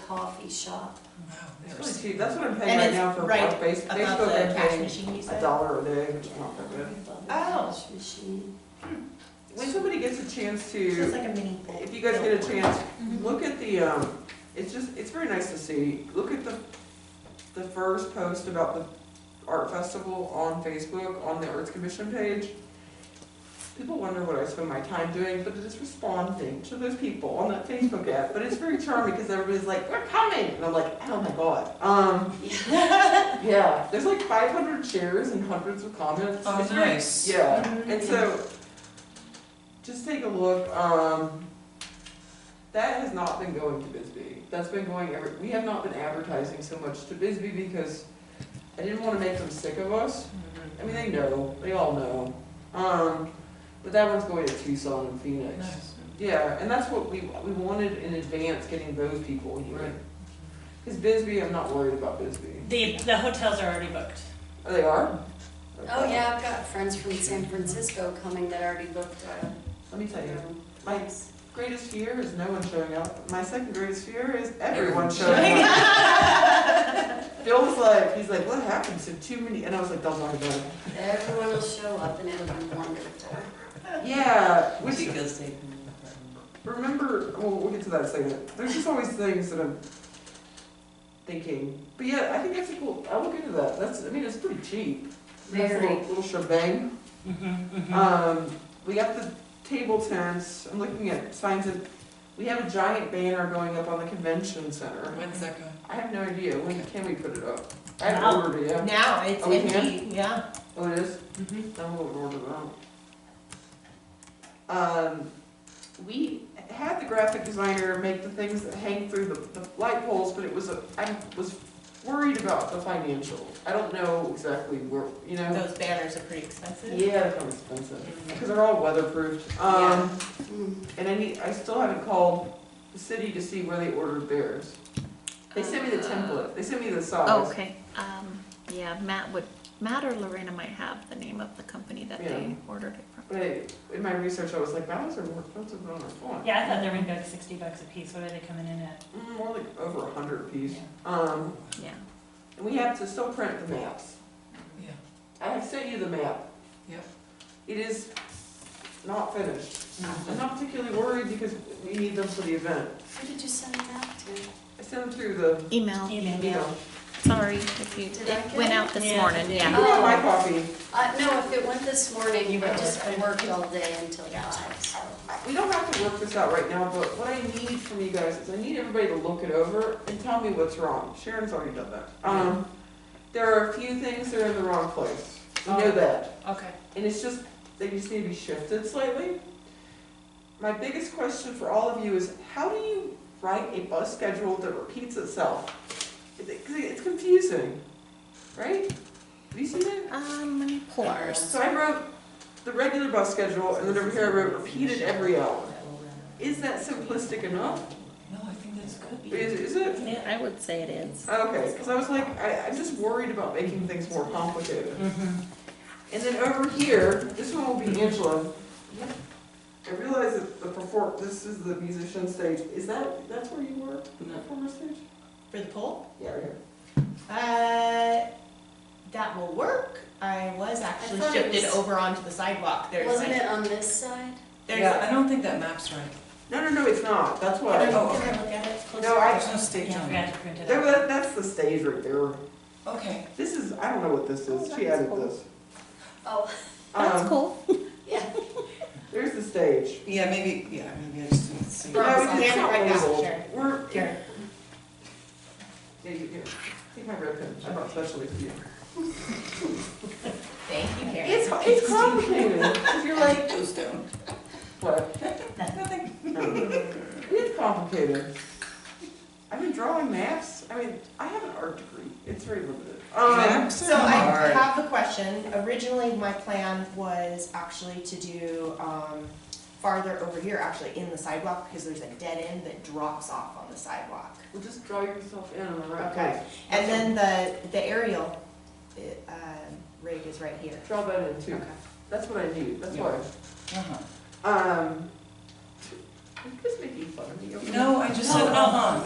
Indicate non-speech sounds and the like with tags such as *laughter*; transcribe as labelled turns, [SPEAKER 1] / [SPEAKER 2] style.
[SPEAKER 1] coffee shop.
[SPEAKER 2] It's really cheap, that's what I'm paying
[SPEAKER 1] And
[SPEAKER 2] right
[SPEAKER 1] it's
[SPEAKER 2] now for
[SPEAKER 1] right
[SPEAKER 2] Facebook,
[SPEAKER 1] About
[SPEAKER 2] Facebook
[SPEAKER 1] the
[SPEAKER 2] I'm
[SPEAKER 1] cash
[SPEAKER 2] paying
[SPEAKER 1] machine you said?
[SPEAKER 2] a dollar a day, which
[SPEAKER 1] Yeah,
[SPEAKER 2] is not that good.
[SPEAKER 1] above the
[SPEAKER 3] Oh.
[SPEAKER 1] cash machine.
[SPEAKER 2] When somebody gets a chance
[SPEAKER 1] It's just
[SPEAKER 2] to,
[SPEAKER 1] like a mini bowl.
[SPEAKER 2] if you guys get a chance,
[SPEAKER 4] Mm-hmm.
[SPEAKER 1] Mhm.
[SPEAKER 2] look at the, um, it's just, it's very nice to see, look at the, the first post about the art festival on Facebook, on the Arts Commission page. People wonder what I spend my time doing, but it is responding to those people on that Facebook app, but it's very charming, because everybody's like, we're coming, and I'm like, oh my god, um.
[SPEAKER 3] *laughs*
[SPEAKER 2] *laughs* Yeah, there's like 500 shares and hundreds of comments.
[SPEAKER 3] Oh,
[SPEAKER 2] It's very-
[SPEAKER 3] nice.
[SPEAKER 2] Yeah,
[SPEAKER 1] Mhm.
[SPEAKER 2] and so just take a look. Um, that has not been going to Bisbee. That's been going every. We have not been advertising so much to Bisbee because I didn't want to make them sick of us. I mean, they know. They all know. Um, but that one's going to Tucson and Phoenix.
[SPEAKER 3] Nice.
[SPEAKER 2] Yeah, and that's what we we wanted in advance getting those people
[SPEAKER 3] Right.
[SPEAKER 2] here. Because Bisbee, I'm not worried about Bisbee.
[SPEAKER 4] The, the hotels are already booked.
[SPEAKER 2] Oh, they are?
[SPEAKER 5] Oh, yeah, I've got friends from San Francisco coming that already booked a
[SPEAKER 2] Let me tell you,
[SPEAKER 5] room.
[SPEAKER 2] my greatest fear is no one showing up. My second greatest fear is everyone showing
[SPEAKER 3] Showing
[SPEAKER 2] up. *laughs* Phil was like, he's like, what happened to too many? And I was like, don't worry about it.
[SPEAKER 5] Everyone will show up and it'll be wonderful.
[SPEAKER 2] Yeah,
[SPEAKER 3] We
[SPEAKER 2] which
[SPEAKER 3] should go stay.
[SPEAKER 2] remember, well, we'll get to that in a second. There's just always things that I'm thinking. But yeah, I think that's a cool. I will get to that. That's, I mean, it's pretty cheap. Nice
[SPEAKER 5] Very.
[SPEAKER 2] little, little shebang. Um, we got the table tents, I'm looking at signs of, we have a giant banner going up on the convention center.
[SPEAKER 3] When's that going?
[SPEAKER 2] I have no idea, when can we put it up? I
[SPEAKER 4] Now.
[SPEAKER 2] haven't ordered it yet.
[SPEAKER 4] Now, it's
[SPEAKER 2] Oh, we can?
[SPEAKER 4] empty, yeah.
[SPEAKER 2] Oh, it is? I'm gonna order it out. Um, we had the graphic designer make the things that hang through the, the light poles, but it was, a- I was worried about the financial. I don't know exactly where, you know?
[SPEAKER 4] Those banners are pretty expensive.
[SPEAKER 2] Oh. Yeah, they're expensive, because they're all weatherproofed. Um,
[SPEAKER 5] Mm.
[SPEAKER 2] And I need, I still haven't called the city to see where they ordered theirs. They sent me the template, they sent me the
[SPEAKER 6] Oh,
[SPEAKER 2] size.
[SPEAKER 6] okay, um, yeah, Matt would, Matt or Lorena might have the name of the company that
[SPEAKER 2] Yeah.
[SPEAKER 6] they ordered it from.
[SPEAKER 2] But in my research, I was like, that was a more expensive than I thought.
[SPEAKER 4] Yeah, I thought they were gonna go to sixty bucks a piece, what are they coming in at?
[SPEAKER 2] Mm, More like over a hundred a piece. Um,
[SPEAKER 6] Yeah,
[SPEAKER 2] and we have to still print the maps.
[SPEAKER 3] Yeah.
[SPEAKER 2] I have sent you the map.
[SPEAKER 3] Yep.
[SPEAKER 2] It is not finished. I'm not particularly worried because we need them for the event.
[SPEAKER 5] Who did you send that to?
[SPEAKER 2] I sent them through the,
[SPEAKER 4] Oh,
[SPEAKER 6] email,
[SPEAKER 2] you
[SPEAKER 4] Email.
[SPEAKER 2] know,
[SPEAKER 6] sorry if you,
[SPEAKER 5] Did I
[SPEAKER 6] it
[SPEAKER 5] get
[SPEAKER 6] went
[SPEAKER 5] it?
[SPEAKER 6] out this
[SPEAKER 4] Yeah,
[SPEAKER 6] morning,
[SPEAKER 4] it
[SPEAKER 2] you
[SPEAKER 6] yeah. Oh.
[SPEAKER 2] have my copy.
[SPEAKER 5] Uh, no, if it went this
[SPEAKER 4] You
[SPEAKER 5] morning,
[SPEAKER 4] wrote
[SPEAKER 5] I just
[SPEAKER 4] it.
[SPEAKER 5] worked all day until five, so.
[SPEAKER 2] We don't have to work this out right now, but what I need from you guys is I need everybody to look it over and tell me what's wrong. Sharon's already done that. Um, there are a few things that are in the wrong place. We know
[SPEAKER 4] Oh.
[SPEAKER 2] that.
[SPEAKER 4] Okay.
[SPEAKER 2] And it's just, they just need to be shifted slightly. My biggest question for all of you is how do you write a bus schedule that repeats itself? It- it- It's confusing, right? Have you seen it?
[SPEAKER 6] Um, let me pull ours.
[SPEAKER 2] So I wrote the regular bus schedule and then over here I wrote repeated every hour. Is that simplistic enough?
[SPEAKER 3] No, I think that's good.
[SPEAKER 2] Is, is it?
[SPEAKER 6] Yeah, I would say it is.
[SPEAKER 2] Okay, because I was like, I, I'm just worried about making things more complicated. And then over here, this one will be Angela. I realize that the perform, this is the musician stage. Is that, that's where you were, the
[SPEAKER 3] No.
[SPEAKER 2] performer stage?
[SPEAKER 4] For the poll?
[SPEAKER 2] Yeah, right here.
[SPEAKER 4] Uh, that will work. I was actually
[SPEAKER 5] thought it
[SPEAKER 4] shifted
[SPEAKER 5] was-
[SPEAKER 4] over onto the sidewalk, there's
[SPEAKER 5] Wasn't
[SPEAKER 4] like,
[SPEAKER 5] it on this side?
[SPEAKER 3] Yeah,
[SPEAKER 4] there's.
[SPEAKER 3] I don't think that map's right.
[SPEAKER 2] No, no, no, it's not. That's
[SPEAKER 4] Can I, can
[SPEAKER 2] why.
[SPEAKER 3] Oh,
[SPEAKER 4] I look at it closer?
[SPEAKER 2] No, I,
[SPEAKER 3] There's no stage
[SPEAKER 4] Yeah, I
[SPEAKER 3] on
[SPEAKER 4] forgot
[SPEAKER 3] it.
[SPEAKER 4] to print it
[SPEAKER 2] that-
[SPEAKER 4] out.
[SPEAKER 2] that- that's the stage right there.
[SPEAKER 3] Okay.
[SPEAKER 2] This is, I don't know what this is. She added this.
[SPEAKER 5] Oh,
[SPEAKER 6] That's
[SPEAKER 2] Um,
[SPEAKER 6] cool.
[SPEAKER 5] yeah.
[SPEAKER 2] There's the stage.
[SPEAKER 3] Yeah, maybe, yeah, maybe I just didn't see.
[SPEAKER 2] No,
[SPEAKER 4] Right.
[SPEAKER 3] it.
[SPEAKER 2] it's- it's not
[SPEAKER 4] Right now,
[SPEAKER 2] labeled.
[SPEAKER 4] sure.
[SPEAKER 2] We're,
[SPEAKER 4] Here.
[SPEAKER 2] Yeah, you do. Take my red pen, I brought especially for you.
[SPEAKER 4] Thank you, Karen.
[SPEAKER 2] It's, it's complicated, if you're like,
[SPEAKER 3] Those down.
[SPEAKER 2] what?
[SPEAKER 3] Nothing.
[SPEAKER 2] It's complicated. I've been drawing maps, I mean, I have an art degree, it's very limited. Um,
[SPEAKER 3] Maps
[SPEAKER 7] So
[SPEAKER 3] are
[SPEAKER 7] I
[SPEAKER 3] hard.
[SPEAKER 7] have a question. Originally, my plan was actually to do, um, farther over here, actually in the sidewalk, because there's a dead end that drops off on the sidewalk.
[SPEAKER 2] well, just draw yourself in on the right
[SPEAKER 7] Okay.
[SPEAKER 2] place.
[SPEAKER 7] And then the, the aerial, it, um, rig is right here.
[SPEAKER 2] Draw that in too, that's what I need, that's why.
[SPEAKER 3] Uh-huh.
[SPEAKER 2] Um, are you guys making fun of me?
[SPEAKER 3] No, I just said, uh-huh,